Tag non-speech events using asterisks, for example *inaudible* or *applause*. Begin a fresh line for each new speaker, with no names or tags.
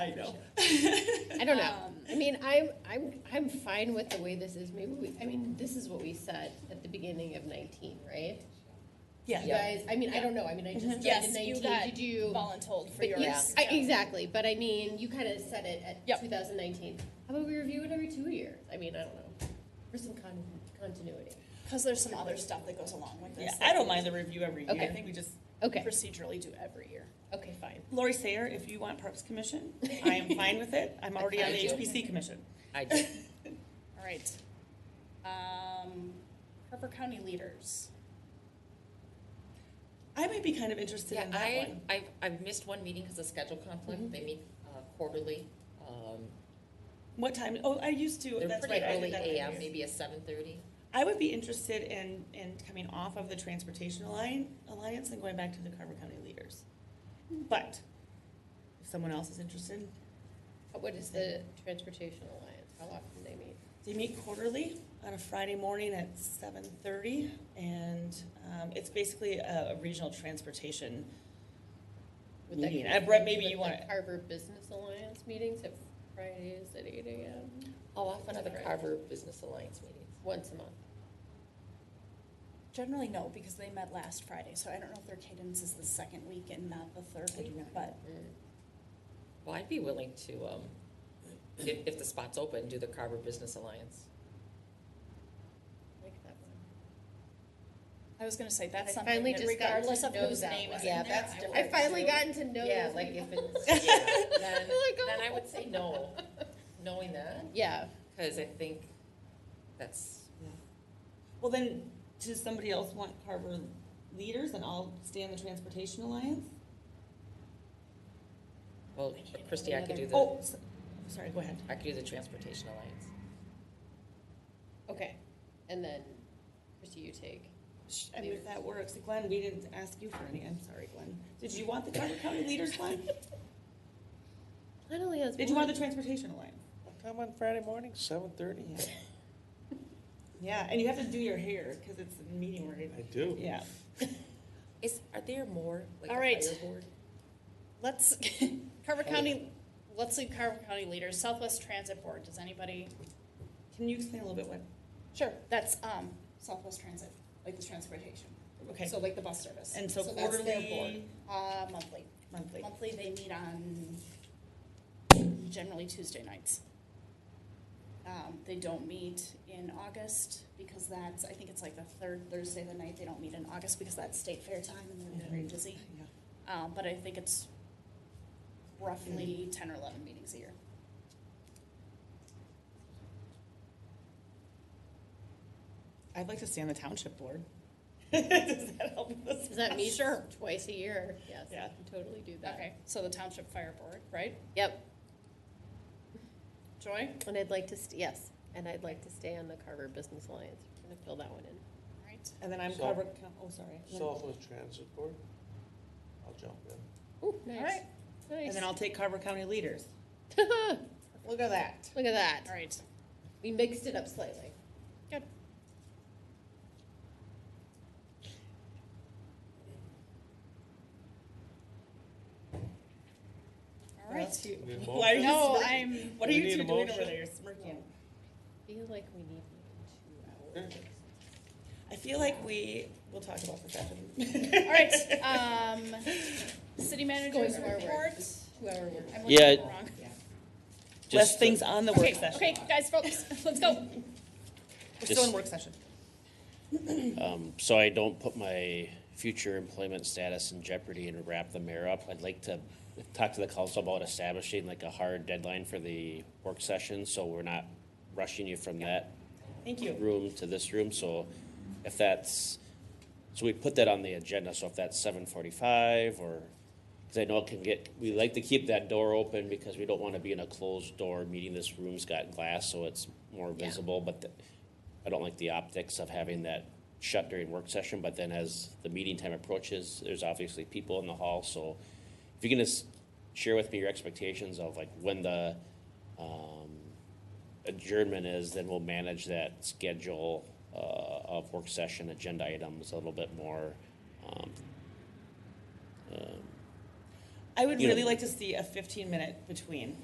I know.
*laughs*
I don't know.
Um,
I mean, I'm, I'm, I'm fine with the way this is. Maybe we, I mean, this is what we said at the beginning of nineteen, right?
Yeah.
You guys, I mean, I don't know. I mean, I just
Yes,
started in
you
nineteen.
got
Did you?
voluntold for
but
your
you-
ass.
I- Exactly, but I mean, you kind of said it
Yep.
at two thousand nineteen. How about we review it every two years? I mean, I don't know, for some con- continuity.
Because there's some other stuff that goes along with
Yeah,
this.
I don't mind the review every year. I
Okay.
think we just
Okay,
Procedurally do every year.
okay, fine.
Lori Sayer, if you want Parks *laughs* Commission, I am fine with it. I'm already on the HPC Commission. *laughs*
I do.
All right. Um, Harper County leaders.
I might be kind of interested
Yeah,
in that
I,
one. Mm-hmm.
I've, I've missed one meeting because of schedule conflict. They meet uh, quarterly. Um,
What time? Oh, I used to.
They're
That's
pretty
right. I did
early
that every
AM,
year.
maybe a seven thirty.
I would be interested in, in coming off of the Transportation Alliance, Alliance and going back to the Carver County Leaders. But if someone else is interested,
What is the Transportation Alliance? How often do they meet?
They meet quarterly on a Friday morning at seven thirty, and um, it's basically a, a regional transportation
Would that
meeting.
be
Uh, Brett, maybe
with
you
the
want to.
Carver Business Alliance meetings at Fridays at eight AM,
Oh, often are the
Right.
Carver Business Alliance meetings.
once a month.
Generally, no, because they met last Friday, so I don't know if their cadence is the second week and not the third
do
week,
not
but
Well, I'd be willing to, um, if, if the spot's open, do the Carver Business Alliance.
Like that one.
I was gonna say, that's
I
something
finally
that
just got to
regardless of
know
whose
that
name is
one.
in
Yeah,
there,
that's
I will-
I finally gotten to know
Yeah,
those
like
people.
if
*laughs*
it's, *laughs* yeah, *laughs* oh. then, then I would say no, knowing that,
Yeah,
because I think that's,
Well, then, does somebody else want Carver Leaders, and I'll stay on the Transportation Alliance?
well, Christie, I could do the,
Oh, s- sorry, go ahead.
I could do the Transportation Alliance.
okay. And then, Christie, you take.
Sh- I mean, if that works, Glenn, we didn't ask you for any. I'm sorry, Glenn. Did you
*laughs*
want the Carver County Leaders, Glenn?
Not only has
Did you want the Transportation Alliance?
Come on Friday morning, seven thirty?
Yeah. Yeah, and you have to do your hair because it's a meeting where it-
I do.
Yeah.
Is, are there more, like a
All
higher
right.
board?
*laughs* *laughs* Let's, Carver County, let's leave Carver County leaders, Southwest Transit Board, does anybody?
Can you explain a little bit what?
Sure. That's, um, Southwest Transit, like the transportation,
Okay.
so like the bus service.
and so,
that's their
quarterly,
board. Uh, monthly.
monthly.
Monthly, they meet on generally Tuesday nights. Um, they don't meet in August because that's, I think it's like the third Thursday of the night, they don't meet in August because that's state fair time and they're very busy.
Yeah.
Um, but I think it's roughly ten or eleven meetings a year.
I'd like to stay on the township board. *laughs* Does that help us? *laughs*
Does that meet
Sure.
twice a year? Yes, I
Yeah.
can totally do that.
Okay, so the Township Fire Board, right?
Yep,
Joy?
and I'd like to, st- yes, and I'd like to stay on the Carver Business Alliance. I'm gonna fill that one in.
Right.
And then I'm
So-
Carver. Co- Oh, sorry. And then-
Southwest Transit Board. I'll jump in.
Ooh,
All
nice,
right,
And
nice.
then I'll take Carver County leaders.
*laughs* Look
Look at that.
at that.
all right.
We mixed it up slightly.
Good. All
What else
right.
do you-
Need a
Why are you
No,
smirking?
I'm-
What are
We
you
need
two
a
doing over
motion?
there? You're smirking.
Feel like we need like two hours.
I feel like we will talk about this after. the- *laughs*
All right, um, city manager's
Going forward.
report.
Two hour work.
I'm looking
Yeah.
at the wrong.
Less
Just,
things on the work
Okay,
session.
okay, guys, folks, *laughs* let's go.
We're still in
Just-
work session.
um, so I don't put my future employment status in jeopardy and wrap the mayor up, I'd like to talk to the council about establishing like a hard deadline for the work session, so we're not rushing you from that
Thank you.
room to this room, so if that's, so we put that on the agenda, so if that's seven forty-five or, cause I know it can get, we like to keep that door open because we don't wanna be in a closed door meeting, this room's got glass, so it's more visible, but the- I don't like the optics of having that shut during work session, but then as the meeting time approaches, there's obviously people in the hall, so if you can just share with me your expectations of like when the, um, adjournment is, then we'll manage that schedule uh, of work session agenda items a little bit more. um, um,
I would
You know-
really like to see a fifteen minute between.